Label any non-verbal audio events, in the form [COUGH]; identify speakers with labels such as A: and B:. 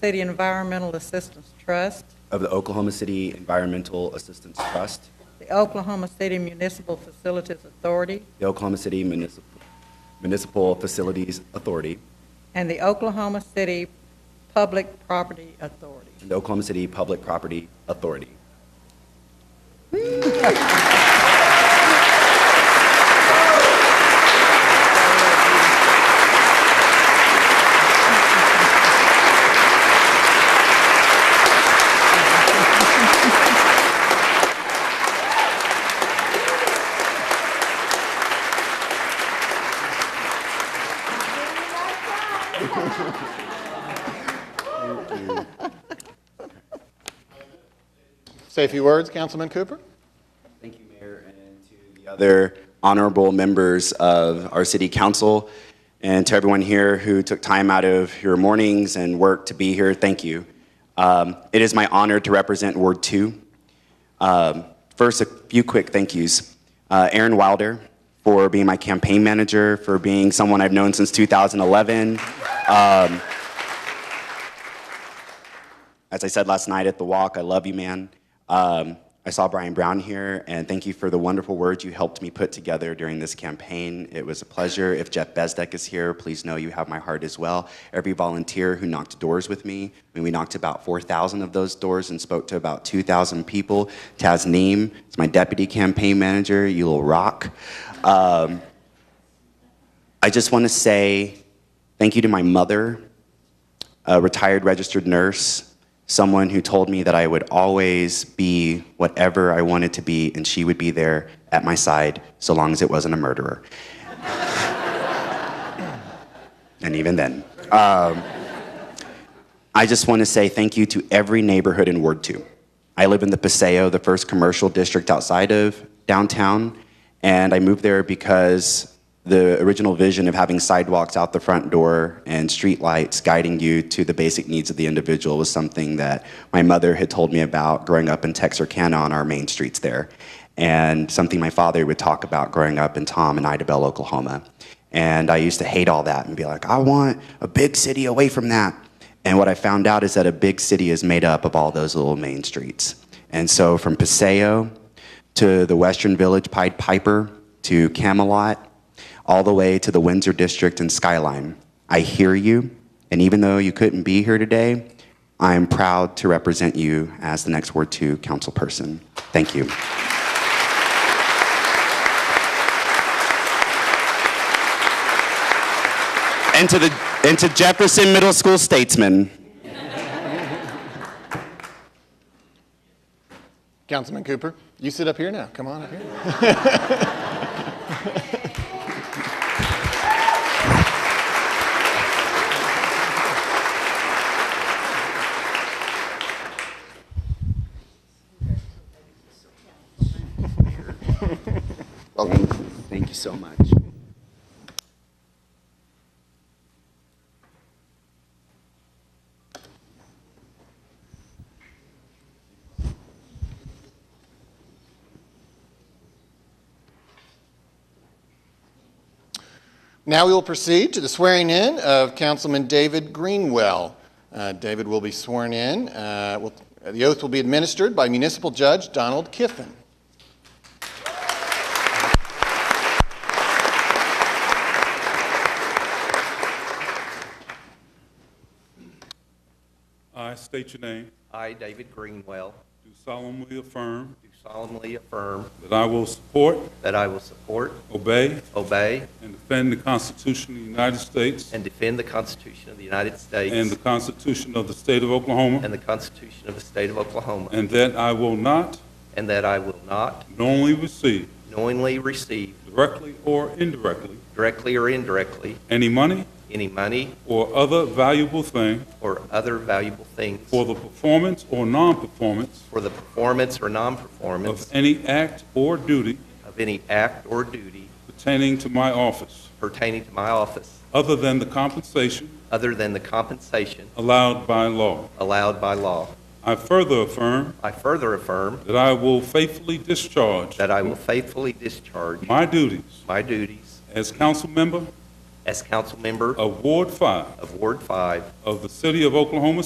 A: City Environmental Assistance Trust,
B: of the Oklahoma City Environmental Assistance Trust,
A: the Oklahoma City Municipal Facilities Authority,
B: the Oklahoma City Municip- Municipal Facilities Authority,
A: and the Oklahoma City Public Property Authority.
B: and the Oklahoma City Public Property Authority.
C: Say a few words, Councilman Cooper.
B: Thank you, Mayor, and to the other honorable members of our city council, and to everyone here who took time out of your mornings and work to be here, thank you. Um, It is my honor to represent Ward 2. Um, First, a few quick thank yous. Uh, Aaron Wilder for being my campaign manager, for being someone I've known since 2011. Um, as I said last night at the walk, I love you, man. Um, I saw Brian Brown here, and thank you for the wonderful words you helped me put together during this campaign. It was a pleasure. If Jeff Bezdek is here, please know you have my heart as well. Every volunteer who knocked doors with me, I mean, we knocked about 4,000 of those doors and spoke to about 2,000 people. Taz Neem is my deputy campaign manager, you little rock. Um, I just want to say thank you to my mother, a retired registered nurse, someone who told me that I would always be whatever I wanted to be, and she would be there at my side so long as it wasn't a murderer. [LAUGHS] and even then. Um, I just want to say thank you to every neighborhood in Ward 2. I live in the Paseo, the first commercial district outside of downtown, and I moved there because the original vision of having sidewalks out the front door and streetlights guiding you to the basic needs of the individual was something that my mother had told me about growing up in Texarkana on our main streets there, and something my father would talk about growing up in Tom and Idabel, Oklahoma. And I used to hate all that and be like, I want a big city away from that. And what I found out is that a big city is made up of all those little main streets. And so from Paseo to the Western Village Pied Piper to Camelot, all the way to the Windsor District and Skyline, I hear you. And even though you couldn't be here today, I am proud to represent you as the next Ward 2 council person. Thank you. And to, the, and to Jefferson Middle School statesmen.
C: Councilman Cooper, you sit up here now. Come on up here.
B: Thank you. Thank you so much.
C: Now we will proceed to the swearing in of Councilman David Greenwell. Uh, David will be sworn in. Uh, will- The oath will be administered by Municipal Judge Donald Kiffin.
D: I state your name.
E: I, David Greenwell,
D: Do solemnly affirm
E: do solemnly affirm
D: that I will support,
E: that I will support,
D: obey,
E: obey,
D: and defend the Constitution of the United States
E: and defend the Constitution of the United
D: and the
E: States
D: Constitution of the State of Oklahoma,
E: and the Constitution of the State of Oklahoma,
D: and that I will not
E: and that I will not
D: knowingly receive,
E: knowingly receive,
D: directly or indirectly,
E: directly or indirectly,
D: any money
E: any money
D: or other valuable thing
E: or other valuable things
D: for the performance or non-performance
E: for the performance or
D: of
E: non-performance
D: any act or duty
E: of any act or duty
D: pertaining to my office,
E: pertaining to my office,
D: other than the compensation
E: other than the compensation
D: allowed by law.
E: allowed by law.
D: I further affirm
E: I further affirm
D: that I will faithfully discharge
E: that I will faithfully discharge
D: my duties
E: my duties
D: as council member
E: as council member
D: of Ward 5
E: of Ward 5
D: of the City of Oklahoma